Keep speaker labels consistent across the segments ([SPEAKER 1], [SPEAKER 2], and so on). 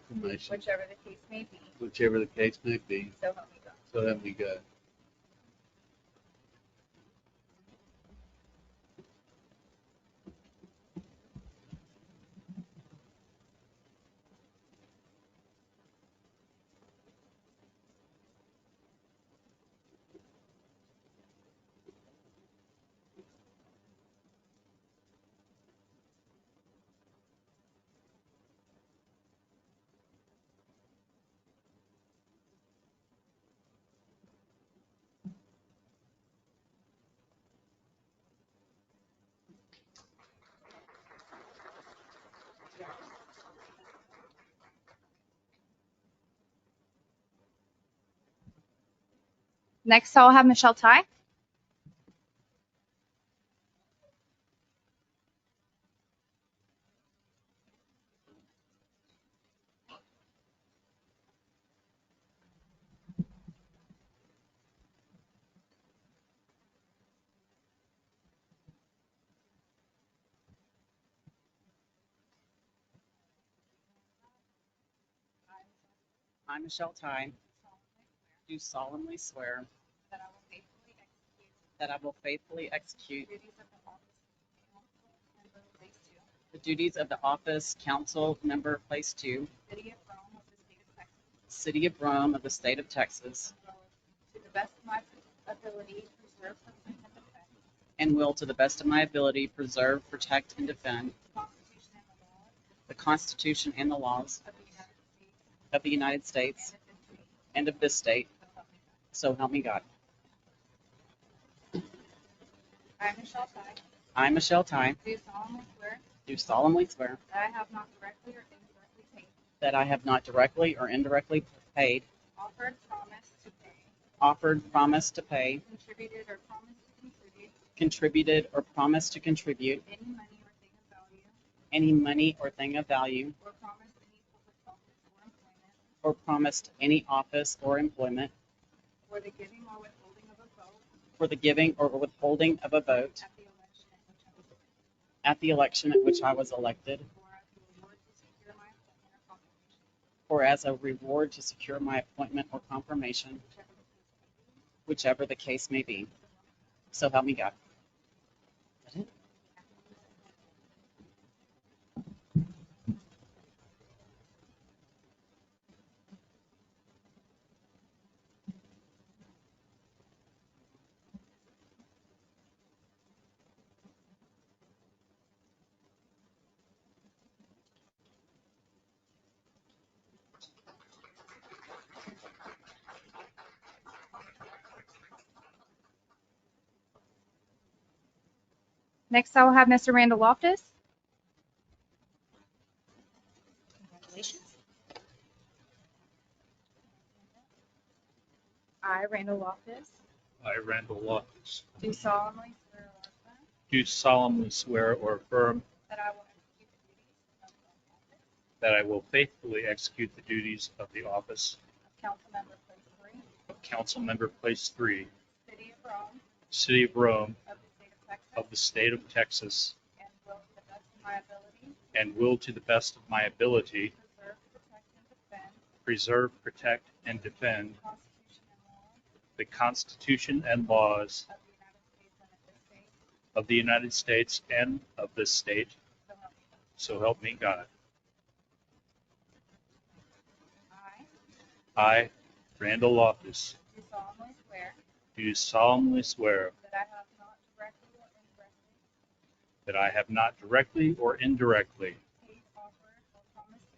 [SPEAKER 1] confirmation,
[SPEAKER 2] whichever the case may be,
[SPEAKER 1] whichever the case may be,
[SPEAKER 2] so help me God.
[SPEAKER 1] so help me God.
[SPEAKER 2] Next, I'll have Michelle Ty.
[SPEAKER 3] I, Michelle Ty, do solemnly swear
[SPEAKER 2] That I will faithfully execute
[SPEAKER 3] that I will faithfully execute
[SPEAKER 2] the duties of the office of council member place two,
[SPEAKER 3] the duties of the office council member place two,
[SPEAKER 2] city of Rome of the state of Texas,
[SPEAKER 3] city of Rome of the state of Texas,
[SPEAKER 2] as well as to the best of my ability preserve, protect, and defend
[SPEAKER 3] and will to the best of my ability preserve, protect, and defend
[SPEAKER 2] the Constitution and the laws
[SPEAKER 3] the Constitution and the laws
[SPEAKER 2] of the United States
[SPEAKER 3] of the United
[SPEAKER 2] and
[SPEAKER 3] States
[SPEAKER 2] of this state,
[SPEAKER 3] and of this state,
[SPEAKER 2] so help me God.
[SPEAKER 3] so help me God.
[SPEAKER 2] I, Michelle Ty,
[SPEAKER 3] I, Michelle Ty,
[SPEAKER 2] do solemnly swear
[SPEAKER 3] do solemnly swear
[SPEAKER 2] that I have not directly or indirectly taken,
[SPEAKER 3] that I have not directly or indirectly paid,
[SPEAKER 2] offered, promised to pay,
[SPEAKER 3] offered, promised to pay,
[SPEAKER 2] contributed, or promised to contribute
[SPEAKER 3] contributed, or promised to contribute
[SPEAKER 2] any money or thing of value,
[SPEAKER 3] any money or thing of value
[SPEAKER 2] or promised any public office or employment,
[SPEAKER 3] or promised any office or employment
[SPEAKER 2] or the giving or withholding of a vote
[SPEAKER 3] for the giving or withholding of a vote
[SPEAKER 2] at the election at which I was elected,
[SPEAKER 3] at the election at which I was elected,
[SPEAKER 2] or as the reward to secure my appointment or confirmation,
[SPEAKER 3] or as a reward to secure my appointment or confirmation,
[SPEAKER 2] whichever the case may be,
[SPEAKER 3] whichever the case may be. So help me God.
[SPEAKER 2] Next, I will have Mr. Randall Loftus. Congratulations. I, Randall Loftus,
[SPEAKER 4] I, Randall Loftus,
[SPEAKER 2] do solemnly swear or affirm
[SPEAKER 4] do solemnly swear or affirm
[SPEAKER 2] that I will execute the duties of the office
[SPEAKER 4] that I will faithfully execute the duties of the office
[SPEAKER 2] of council member place three,
[SPEAKER 4] of Council Member Place Three,
[SPEAKER 2] city of Rome,
[SPEAKER 4] City of Rome,
[SPEAKER 2] of the state of
[SPEAKER 4] of
[SPEAKER 2] Texas,
[SPEAKER 4] the State of Texas,
[SPEAKER 2] and will to the best of my ability
[SPEAKER 4] and will to the best of my ability
[SPEAKER 2] preserve, protect, and defend
[SPEAKER 4] preserve, protect, and defend
[SPEAKER 2] the Constitution and laws
[SPEAKER 4] the Constitution and laws
[SPEAKER 2] of the United States and of this state,
[SPEAKER 4] of the United States and of this state,
[SPEAKER 2] so help me God.
[SPEAKER 4] so help me God.
[SPEAKER 2] I
[SPEAKER 4] I, Randall Loftus,
[SPEAKER 2] do solemnly swear
[SPEAKER 4] do solemnly swear
[SPEAKER 2] that I have not directly or indirectly
[SPEAKER 4] that I have not directly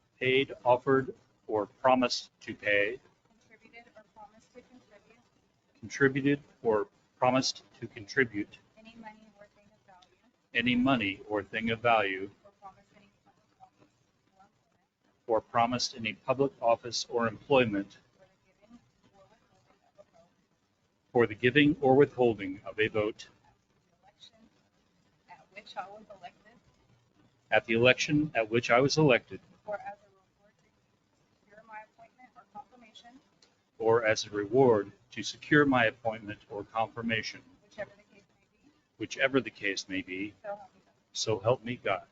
[SPEAKER 4] or indirectly
[SPEAKER 2] paid, offered, or promised to pay,
[SPEAKER 4] paid, offered, or promised to pay,
[SPEAKER 2] contributed, or promised to contribute
[SPEAKER 4] contributed, or promised to contribute
[SPEAKER 2] any money or thing of value,
[SPEAKER 4] any money or thing of value,
[SPEAKER 2] or promised any public office or employment,
[SPEAKER 4] or promised any public office or employment
[SPEAKER 2] for the giving or withholding of a vote
[SPEAKER 4] for the giving or withholding of a vote
[SPEAKER 2] at the election at which I was elected,
[SPEAKER 4] at the election at which I was elected,
[SPEAKER 2] or as a reward to secure my appointment or confirmation,
[SPEAKER 4] or as a reward to secure my appointment or confirmation,
[SPEAKER 2] whichever the case may be,
[SPEAKER 4] whichever the case may be,
[SPEAKER 2] so help me God.
[SPEAKER 4] so help me God.